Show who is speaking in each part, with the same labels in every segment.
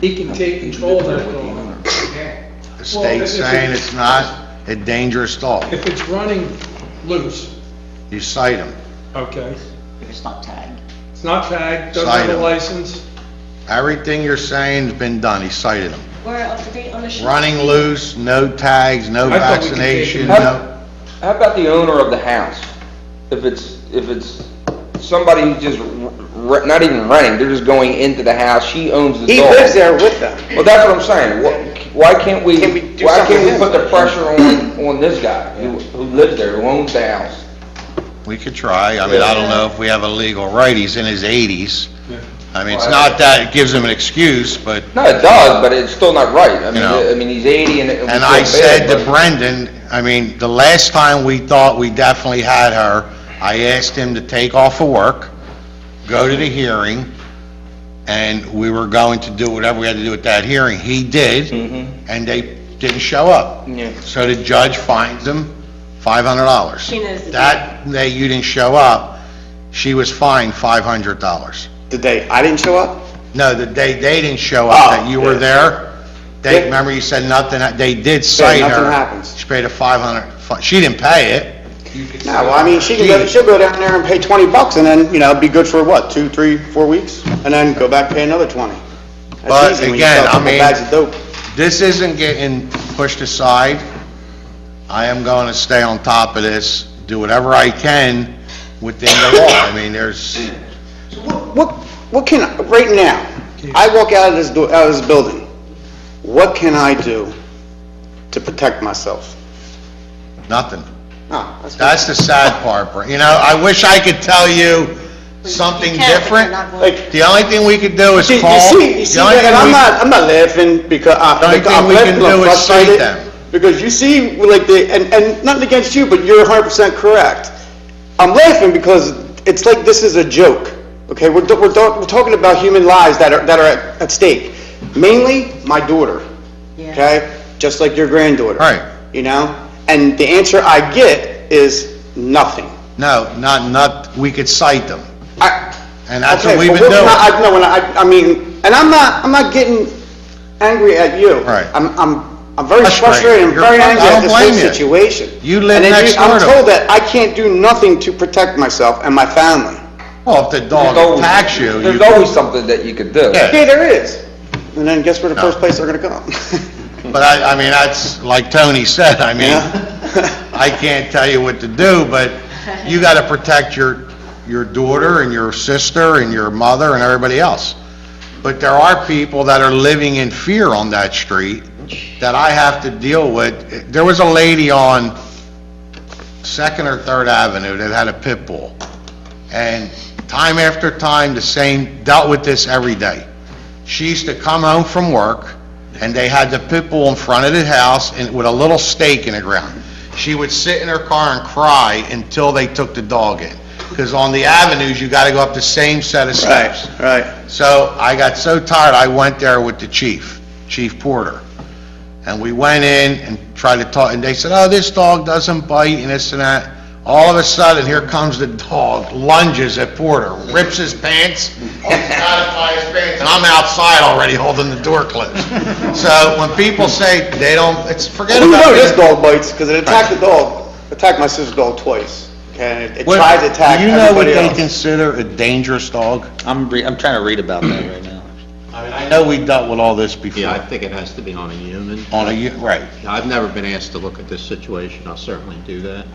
Speaker 1: He can take control of that dog.
Speaker 2: The
Speaker 1: Well, if-
Speaker 2: state's
Speaker 1: if it-
Speaker 2: saying it's not a dangerous dog.
Speaker 1: If it's running loose,
Speaker 2: You cite them.
Speaker 1: okay,
Speaker 3: If it's not tagged.
Speaker 1: it's not tagged, doesn't have
Speaker 2: Cite
Speaker 1: a
Speaker 2: 'em.
Speaker 1: license,
Speaker 2: Everything you're saying's been done, he cited them.
Speaker 3: We're up to date on the shop.
Speaker 2: Running loose, no tags, no
Speaker 1: I thought we could take
Speaker 2: vaccination,
Speaker 1: him.
Speaker 2: no...
Speaker 4: How about the owner of the house? If it's, if it's somebody who just, re- not even renting, they're just going into the house, she owns the dog.
Speaker 5: He lives there with them.
Speaker 4: Well, that's what I'm saying, Wha- why can't we,
Speaker 5: Can we do
Speaker 4: why
Speaker 5: something
Speaker 4: can't we
Speaker 5: with
Speaker 4: put
Speaker 5: him?
Speaker 4: the pressure on, on this guy who, who lives there, who owns the house?
Speaker 2: We could try. I mean, I don't know if we have a legal right. He's in his 80s.
Speaker 1: Yeah.
Speaker 2: I mean, it's not that it gives him an excuse, but...
Speaker 4: No, it does, but it's still not right, I mean,
Speaker 2: No.
Speaker 4: I mean, he's eighty and. it- we
Speaker 2: And
Speaker 4: feel
Speaker 2: I
Speaker 4: bad,
Speaker 2: said to
Speaker 4: but-
Speaker 2: Brendan, I mean, the last time we thought we definitely had her, I asked him to take off of work, go to the hearing, and we were going to do whatever we had to do at that hearing. He did, and they didn't show up.
Speaker 4: Mm-hmm. Yeah.
Speaker 2: So the judge fines him $500.
Speaker 3: She knows the
Speaker 2: That day you didn't show up, she was fined $500.
Speaker 5: Did they, I didn't show up?
Speaker 2: No, the day they didn't show up, that you were
Speaker 5: Oh,
Speaker 2: there,
Speaker 5: Yeah.
Speaker 2: they, remember you said nothing, ha- they did cite her.
Speaker 5: nothing happens.
Speaker 2: She paid a 500, fi- she didn't pay it.
Speaker 5: No, well, I mean, she can go, she'll go down there and pay 20 bucks and then, you know, be good for what, two, three, four weeks? And then go back, pay another 20. That's
Speaker 2: But
Speaker 5: easy when you
Speaker 2: again,
Speaker 5: sell a
Speaker 2: I
Speaker 5: couple
Speaker 2: mean-
Speaker 5: bags of dope.
Speaker 2: This isn't getting pushed aside. I am going to stay on top of this, do whatever I can within the law. I mean, there's,
Speaker 5: What, what can, I- right now, I walk out of this, do- out of this building, what can I do to protect myself?
Speaker 2: nothing.
Speaker 5: No, that's not-
Speaker 2: That's the sad part, Bri- you know, I wish I could tell you something
Speaker 3: You can, but you're
Speaker 2: different.
Speaker 3: not going
Speaker 5: Like,
Speaker 3: to.
Speaker 2: The only thing we could do is
Speaker 5: you you
Speaker 2: call.
Speaker 5: see, you
Speaker 2: the
Speaker 5: see,
Speaker 2: only
Speaker 5: Greg, and
Speaker 2: thing
Speaker 5: I'm
Speaker 2: we-
Speaker 5: not, I'm not laughing because I-
Speaker 2: The only
Speaker 5: because I'm
Speaker 2: thing we can
Speaker 5: laughing, because
Speaker 2: do
Speaker 5: I'm
Speaker 2: is cite
Speaker 5: frustrated.
Speaker 2: them.
Speaker 5: Because you see, like, the, and, and nothing against you, but you're 100% correct. I'm laughing because it's like this is a joke, okay? We're, do- we're, do- we're talking about human lives that are, that are at, at stake. Mainly, my daughter,
Speaker 3: Yeah.
Speaker 5: okay? Just like your granddaughter.
Speaker 2: Right.
Speaker 5: You know? And the answer I get is nothing.
Speaker 2: No, not, not, we could cite them.
Speaker 5: I,
Speaker 2: And that's
Speaker 5: Okay,
Speaker 2: what we've
Speaker 5: but
Speaker 2: been
Speaker 5: we're not-
Speaker 2: doing.
Speaker 5: I, no, and I, I mean, and I'm not, I'm not getting angry at you.
Speaker 2: Right.
Speaker 5: I'm, I'm, I'm very
Speaker 2: Frustrated.
Speaker 5: frustrated, I'm
Speaker 2: You're
Speaker 5: very
Speaker 2: fr- I
Speaker 5: angry at
Speaker 2: don't
Speaker 5: this
Speaker 2: blame
Speaker 5: whole
Speaker 2: you.
Speaker 5: situation.
Speaker 2: You live
Speaker 5: And then
Speaker 2: next door to
Speaker 5: I'm told
Speaker 2: me.
Speaker 5: that I can't do nothing to protect myself and my family.
Speaker 2: Well, if the
Speaker 4: There's
Speaker 2: dog
Speaker 4: always-
Speaker 2: attacks you, you
Speaker 4: There's always something that you could do.
Speaker 2: Yeah.
Speaker 5: Yeah, there is. And then guess where the
Speaker 2: No.
Speaker 5: first place they're gonna go?
Speaker 2: But I, I mean, that's, like Tony said, I mean,
Speaker 5: Yeah.
Speaker 2: I can't tell you what to do, but you gotta protect your, your daughter and your sister and your mother and everybody else. But there are people that are living in fear on that street that I have to deal with. There was a lady on Second or Third Avenue that had a pit bull. And time after time, the same, dealt with this every day. She used to come home from work, and they had the pit bull in front of the house and with a little stake in the ground. She would sit in her car and cry until they took the dog in. Because on the avenues, you gotta go up the same set of steps.
Speaker 5: right.
Speaker 2: So I got so tired, I went there with the chief, Chief Porter. And we went in and tried to talk, and they said, oh, this dog doesn't bite and this and that. All of a sudden, here comes the dog, lunges at Porter, rips his pants, holds out of by his pants, and I'm outside already holding the door closed. So when people say they don't, it's, forget
Speaker 5: Well, you
Speaker 2: about
Speaker 5: know
Speaker 2: it.
Speaker 5: this dog bites, cause it attacked the dog, attacked my sister's dog twice, okay? and It it
Speaker 2: What-
Speaker 5: tried to attack
Speaker 2: Do you know what
Speaker 5: everybody
Speaker 2: they
Speaker 5: else.
Speaker 2: consider a dangerous dog?
Speaker 6: I'm, re- I'm trying to read about that right now.
Speaker 2: I know we dealt with all this before.
Speaker 6: Yeah, I think it has to be on a human.
Speaker 2: On a, u- right.
Speaker 6: I've never been asked to look at this situation, I'll certainly do that.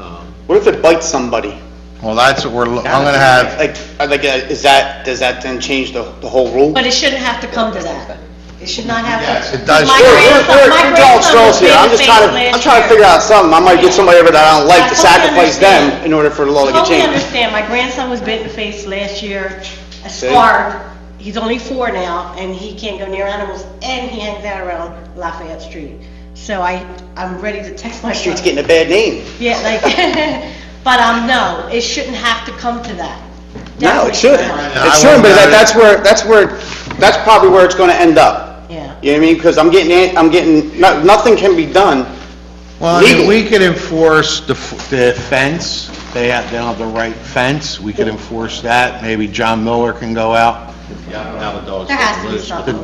Speaker 6: Um,
Speaker 5: What if it bites somebody?
Speaker 2: Well, that's what we're, lo- I'm gonna have.
Speaker 5: Like, uh, like, uh, is that, does that then change the, the whole rule?
Speaker 3: But it shouldn't have to come to that. It should not have to.
Speaker 2: Yes, it does.
Speaker 3: My
Speaker 2: Sure,
Speaker 5: We're- we're-
Speaker 3: grandson, my
Speaker 5: we're- we're drawing
Speaker 3: grandson was
Speaker 5: straws here.
Speaker 3: made
Speaker 5: I'm
Speaker 3: a
Speaker 5: just
Speaker 3: face
Speaker 5: trying to, I'm
Speaker 3: last
Speaker 5: trying to
Speaker 3: year.
Speaker 5: figure out something, I might get somebody over that I don't
Speaker 3: I
Speaker 5: like to
Speaker 3: totally
Speaker 5: sacrifice them
Speaker 3: understand.
Speaker 5: in order for the law to get
Speaker 3: Totally
Speaker 5: changed.
Speaker 3: understand, my grandson was bit in the face last year, a scar, he's only four now, and he can't go near animals, and he hangs out around Lafayette Street. So I, I'm ready to text my
Speaker 5: Street's
Speaker 3: son.
Speaker 5: getting a bad name.
Speaker 3: Yeah, like, but, um, no, it shouldn't have to come to that. Definitely
Speaker 5: No, it shouldn't.
Speaker 2: I
Speaker 5: It shouldn't, but
Speaker 2: wouldn't
Speaker 5: that,
Speaker 2: know.
Speaker 5: that's where, that's where, that's probably where it's gonna end up.
Speaker 3: Yeah.
Speaker 5: You know what I mean? Because I'm getting, an- I'm getting, no- nothing can be done.
Speaker 2: Well, I mean,
Speaker 5: Legal.
Speaker 2: we could enforce the, f- the fence, they have, they don't have the right fence, we could enforce that, maybe John Miller can go out.
Speaker 6: Now the dog's
Speaker 3: There has
Speaker 6: getting
Speaker 3: to be
Speaker 6: loose.
Speaker 3: something.